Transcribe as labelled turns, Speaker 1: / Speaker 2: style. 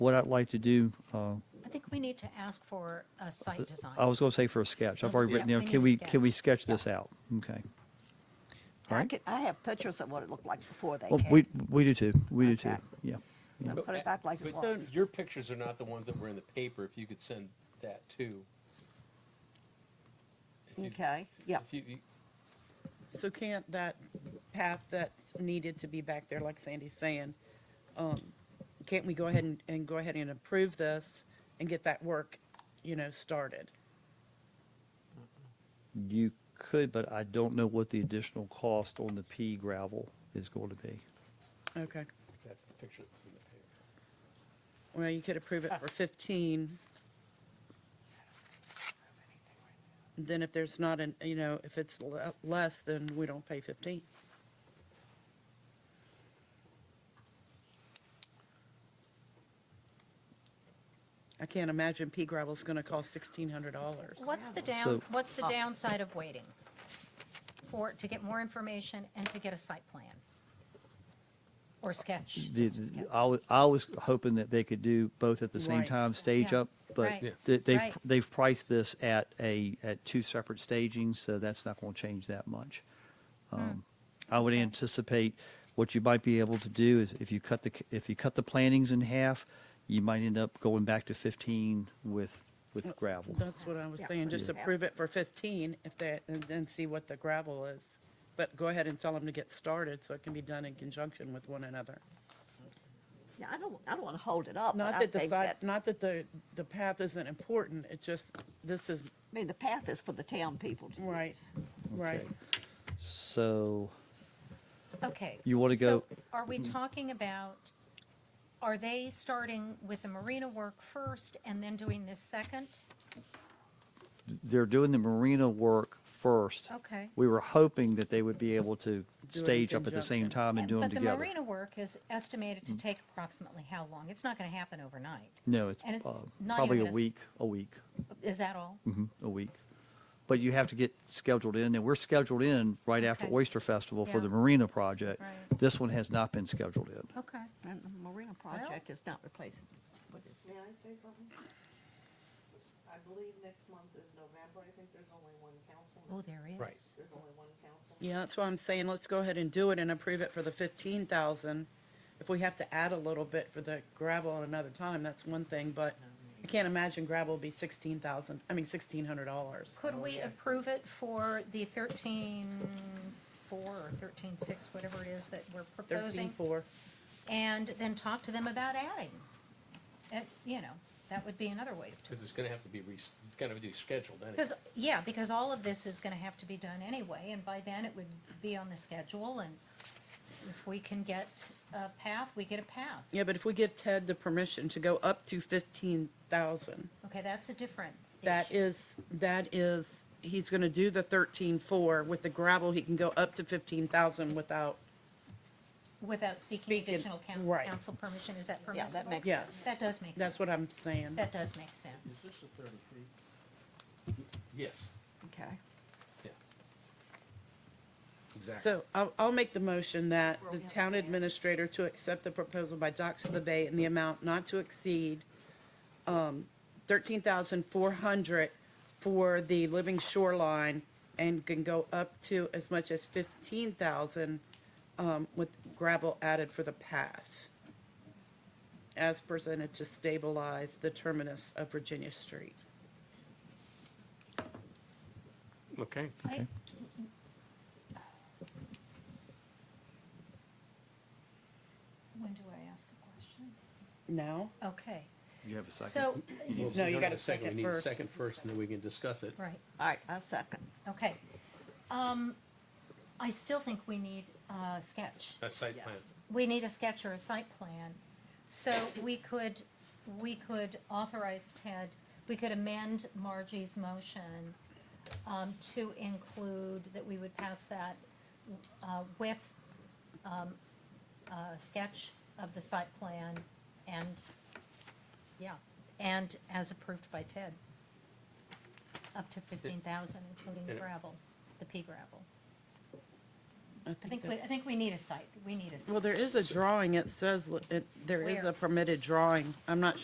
Speaker 1: what I'd like to do, uh,
Speaker 2: I think we need to ask for a site design.
Speaker 1: I was going to say for a sketch. I've already
Speaker 2: Yeah,
Speaker 1: written
Speaker 2: we
Speaker 1: down,
Speaker 2: need
Speaker 1: can
Speaker 2: a
Speaker 1: we, can we sketch
Speaker 2: Yeah.
Speaker 1: this out? Okay. All
Speaker 3: I
Speaker 1: right.
Speaker 3: could, I have pictures of what it looked like before they
Speaker 1: Well,
Speaker 3: came.
Speaker 1: we, we do too. We do too.
Speaker 3: Okay.
Speaker 1: Yeah.
Speaker 3: And Put it back like it
Speaker 4: But
Speaker 3: was.
Speaker 4: Your pictures are not the ones that were in the paper, if you could send that too. If you-
Speaker 3: Okay, yeah.
Speaker 4: If you, you-
Speaker 5: So can't that path that needed to be back there, like Sandy's saying, um, can't we go ahead and, and go ahead and approve this and get that work, you know, started?
Speaker 1: You could, but I don't know what the additional cost on the pea gravel is going to be.
Speaker 5: Okay,
Speaker 4: that's the picture that was in the Ah. paper.
Speaker 5: well, you could approve it for fifteen. Then if there's not an, you know, if it's le- less, then we don't pay fifteen. I can't imagine pea gravel's gonna cost sixteen hundred dollars.
Speaker 2: What's the down,
Speaker 1: So-
Speaker 2: what's the downside of waiting? For, to get more information and to get a site plan? Or sketch?
Speaker 1: The- I was, I was hoping that they could do both at the same
Speaker 5: Right.
Speaker 1: time, stage
Speaker 2: Yeah.
Speaker 1: up, but
Speaker 2: Right. Yeah.
Speaker 1: they- they've,
Speaker 2: Right.
Speaker 1: they've priced this at a, at two separate stagings, so that's not going to change that much.
Speaker 2: Hmm.
Speaker 1: Um, I would anticipate what you might be able to do is if you cut the, c- if you cut the plantings in half, you might end up going back to 15 with,
Speaker 2: Oh,
Speaker 1: with gravel.
Speaker 5: That's what I was
Speaker 3: Yeah.
Speaker 5: saying, just
Speaker 3: Yeah.
Speaker 5: approve it for fifteen if they, and then see what the gravel is. But go ahead and tell them to get started so it can be done in conjunction with one another.
Speaker 3: Yeah, I don't, I don't want to hold it up, but
Speaker 5: Not
Speaker 3: I
Speaker 5: that the
Speaker 3: think
Speaker 5: side,
Speaker 3: that, I
Speaker 5: not that the, the path isn't important, it's just, this is,
Speaker 3: mean, the path is for the town people to
Speaker 5: right,
Speaker 3: use.
Speaker 5: right.
Speaker 1: Okay. So
Speaker 2: Okay.
Speaker 1: You wanna
Speaker 2: so
Speaker 1: go- Mm-hmm.
Speaker 2: Are we talking about, are they starting with the marina work first and then doing this second?
Speaker 1: they're doing the marina work first.
Speaker 2: Okay.
Speaker 1: We were hoping that they would be able to
Speaker 5: in
Speaker 1: stage up at the same
Speaker 5: conjunction.
Speaker 1: time and do them
Speaker 2: Uh, But the
Speaker 1: together. Mm.
Speaker 2: marina work is estimated to take approximately how long? It's not going to happen overnight.
Speaker 1: No, it's
Speaker 2: and it's
Speaker 1: uh,
Speaker 2: not
Speaker 1: probably
Speaker 2: even
Speaker 1: a
Speaker 2: a s-
Speaker 1: week, a week,
Speaker 2: Is that all?
Speaker 1: mhm, a week. But you have to get scheduled in, and we're scheduled in right after
Speaker 2: Okay.
Speaker 1: Oyster Festival for
Speaker 2: Yeah.
Speaker 1: the marina project.
Speaker 2: Right. Oh.
Speaker 1: This one has not been scheduled in.
Speaker 2: Okay.
Speaker 3: And the marina project is not replacing what is.
Speaker 6: May I say something? I believe next month is November, I think there's only one council.
Speaker 2: Oh, there is.
Speaker 4: Right.
Speaker 6: There's only one council.
Speaker 5: Yeah, that's why I'm saying, let's go ahead and do it and approve it for the fifteen thousand. If we have to add a little bit for the gravel another time, that's one thing, but I can't imagine gravel will be sixteen thousand, I mean sixteen hundred dollars.
Speaker 2: Could we approve it for the thirteen four or thirteen six, whatever it is that we're
Speaker 5: Thirteen
Speaker 2: proposing?
Speaker 5: four.
Speaker 2: And then talk to them about adding? Uh, You know, that would be another way to.
Speaker 4: Because it's gonna have to be, re- it's gonna be scheduled anyway.
Speaker 2: Because, yeah, because all of this is going to have to be done anyway, and by then it would be on the schedule, and if we can get a path, we get a path.
Speaker 5: Yeah, but if we give Ted the permission to go up to fifteen thousand,
Speaker 2: Okay, that's a different.
Speaker 5: that
Speaker 2: issue.
Speaker 5: is, that is, he's gonna do the thirteen-four. With the gravel, he can go up to fifteen thousand without,
Speaker 2: Without seeking
Speaker 5: Speaking-
Speaker 2: additional coun-
Speaker 5: right.
Speaker 2: council permission, is that
Speaker 3: Yeah,
Speaker 2: permissible?
Speaker 3: that makes
Speaker 5: Yes.
Speaker 3: sense.
Speaker 2: That does make.
Speaker 5: that's
Speaker 2: sense.
Speaker 5: what I'm saying.
Speaker 2: That does make sense.
Speaker 4: this the thirty feet? Yes,
Speaker 3: Okay.
Speaker 4: yeah. Exactly.
Speaker 5: So I'll, I'll make the motion that the town administrator to accept the proposal by Docks of the Bay in the amount not to exceed um, thirteen thousand four hundred for the living shoreline and can go up to as much as fifteen thousand um, with gravel added for the path as presented to stabilize the terminus of Virginia Street.
Speaker 4: Okay.
Speaker 2: I- When do I ask a question?
Speaker 5: Now?
Speaker 2: Okay,
Speaker 1: You have a second?
Speaker 2: so,
Speaker 5: No, you gotta second
Speaker 4: We need a
Speaker 5: first.
Speaker 4: second first, and then we can discuss it.
Speaker 2: right.
Speaker 3: All right, I second.
Speaker 2: Okay. Um, I still think we need a sketch.
Speaker 4: A site plan.
Speaker 2: We need a sketch or a site plan. So we could, we could authorize Ted, we could amend Margie's motion um, to include that we would pass that uh, with um, a sketch of the site plan and, yeah, and as approved by Ted, up to 15,000, including gravel, the pea gravel.
Speaker 5: I
Speaker 2: I think, we I
Speaker 5: that's-
Speaker 2: think we need a site, we need a site.
Speaker 5: Well, there is a drawing, it says, li- it- there is
Speaker 2: Where?
Speaker 5: a permitted drawing. I'm not sure